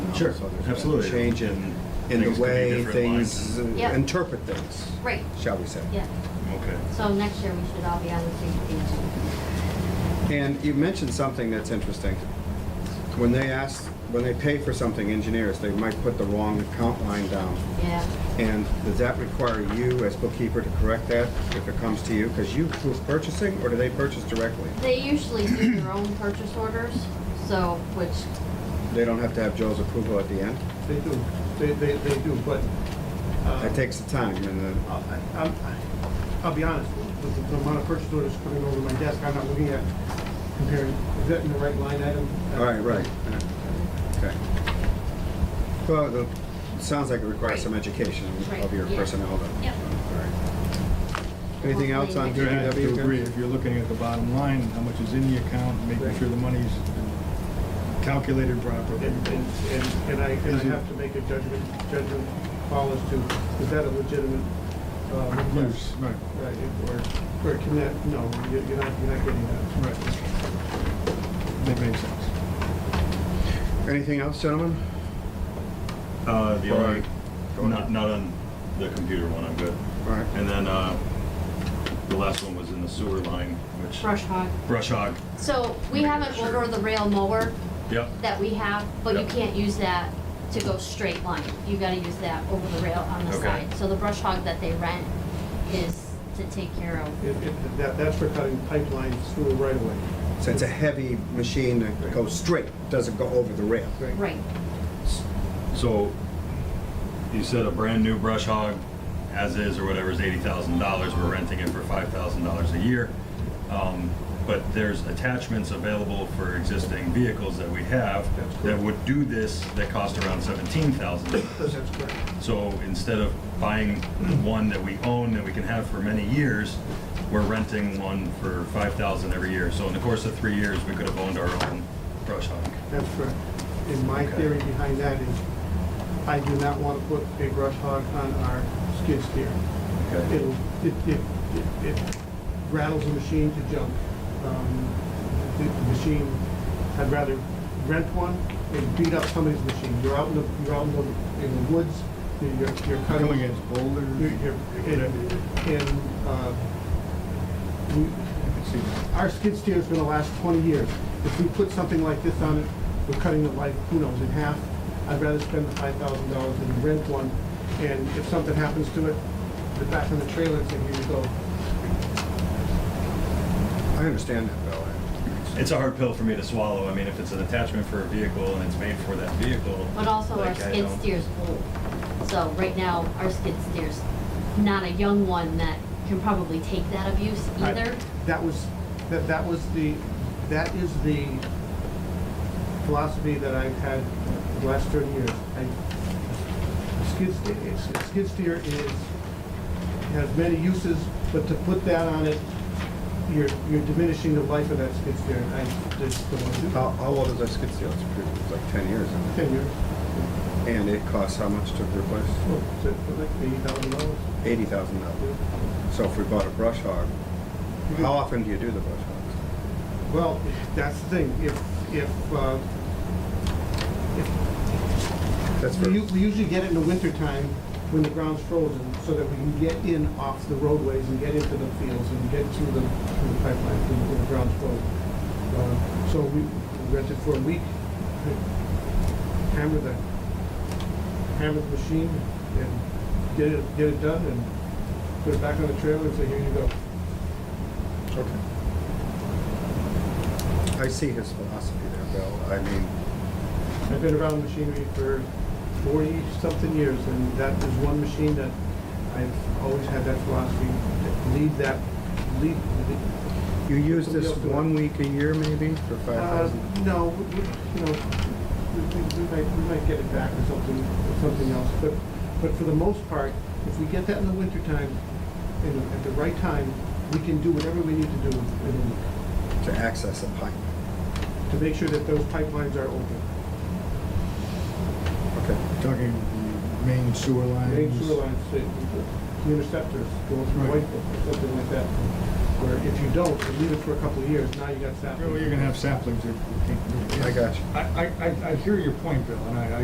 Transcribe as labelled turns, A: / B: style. A: Sure,
B: Um, So there's been a
A: absolutely.
B: Change in, in
A: Things could
B: the
A: be
B: way
A: different
B: things
A: lines.
B: uh,
C: Yep.
B: interpret things,
C: Right,
B: shall we say.
C: yeah.
A: Okay.
C: So next year, we should all be on the same page.
B: And you mentioned something that's interesting. When they ask, when they pay for something, engineers, they might put the wrong account line down.
C: Yeah,
B: And does that require you as bookkeeper to correct that if it comes to you? Because you approve purchasing, or do they purchase directly?
C: they usually do their own purchase orders, so, which,
B: They don't have to have Joe's approval at the end?
D: They do, they, they, they do, but. uh,
A: Um,
B: That takes the time and
D: I- I- I'm- I- I'll be honest, with the- the amount of purchase orders coming over my desk, I'm not looking at comparing, is that in the right line item?
B: the, all right, right. Okay. Well, the- it sounds like it requires some education of your
C: Right, yeah.
B: personnel then.
C: Yep.
B: All right. Anything else on
C: Hopefully
A: I have
B: DPW?
A: to agree, if you're looking at the bottom line, how much is in the account, making
D: Right.
A: sure the money's calculated properly.
D: And, and, and- and I, and I
A: Is it-
D: have to make a judgment, judgment call as to, is that a legitimate, uh,
A: Yes,
D: request?
A: right,
D: Right, it- or, or can that, no, you- you're not, you're not getting that.
A: right. That makes sense.
B: Anything else, gentlemen?
E: Uh, the only,
B: Right.
E: not, not on the computer one, I'm good.
B: All right.
E: And then, uh, the last one was in the sewer line, which,
C: brush hog.
E: brush hog,
C: So, we have an
E: Sure.
C: over-the-rail mower
E: yep,
C: that we have, but you
E: Yep.
C: can't use that to go straight line. You gotta use that over the rail on the
E: Okay.
C: side. So the brush hog that they rent is to take care of.
D: It, it, that, that's for cutting pipelines through right away.
B: So it's a heavy machine that goes straight, doesn't go over the rail.
C: Right,
E: so, you said a brand-new brush hog, as is or whatever, is eighty thousand dollars, we're renting it for five thousand dollars a year. Um, but there's attachments available for existing vehicles that we have
D: That's correct.
E: that would do this, that cost around seventeen thousand dollars.
D: That's correct.
E: So instead of buying one that we own that we can have for many years, we're renting one for five thousand every year. So in the course of three years, we could have owned our own brush hog.
D: That's correct. And my
E: Okay.
D: theory behind that is, I do not want to put a brush hog on our skid steer. It'll, it, it, it- it rattles the machine to junk. Um, The the machine, I'd rather rent one and beat up somebody's machine. You're out in the, you're out in the, in the woods, you're, you're cutting.
A: Coming against boulders.
D: You're, you're, and, and, uh, we,
A: I can see that.
D: our skid steer is gonna last twenty years. If we put something like this on it, we're cutting the life, who knows, in half. I'd rather spend the five thousand dollars and rent one, and if something happens to it, the back on the trailer, it's like, here you go.
B: I understand that, Bill.
E: It's a hard pill for me to swallow. I mean, if it's an attachment for a vehicle and it's made for that vehicle.
C: but also our
E: like, I
C: skid
E: don't-
C: steer's old. So right now, our skid steer's not a young one that can probably take that abuse
D: I-
C: either.
D: That was, that, that was the, that is the philosophy that I've had the last thirty years. I- Skid steer, it's- skid steer is, has many uses, but to put that on it, you're, you're diminishing the life of that skid steer. and I just don't want to do that.
B: How, how old is that skid steer? It's pretty- It's like ten years, isn't
D: Ten years,
B: it? And it costs how much to replace?
D: oh, is it like eighty thousand dollars?
B: Eighty thousand dollars. So if we bought a brush hog,
A: Mm-hmm.
B: how often do you do the brush hogs?
D: Well, that's the thing, if, if, uh, if
B: That's for,
D: We u- we usually get it in the wintertime when the ground's frozen, so that we can get in off the roadways and get into the fields and get to the, to the pipeline when when the ground's frozen. Uh, So we rent it for a week, hammer the, hammer the machine and get it, get it done and put it back on the trailer and say, here you go.
B: okay. I see his philosophy there, Bill. I mean,
D: I've been around machinery for forty-something years, and that is one machine that I've always had that philosophy, that lead that, lead,
B: you use this one week a year maybe for five
D: uh,
B: thousand?
D: no, we- we- you know, we, we- we might, we might get it back or something, or something else, but, but for the most part, if we get that in the wintertime, you know, at the right time, we can do whatever we need to do in a week
B: To access a pipe.
D: to make sure that those pipelines are open.
B: Okay.
A: Talking the main sewer lines.
D: Main sewer lines, the the interceptors go through
A: Right.
D: Whiteville or something like that. Where if you don't, you leave it for a couple of years, now you got
A: Well,
D: saplings.
A: you're gonna have saplings. that you can't do.
B: I got you.
A: I, I, I- I hear your point, Bill, and I, I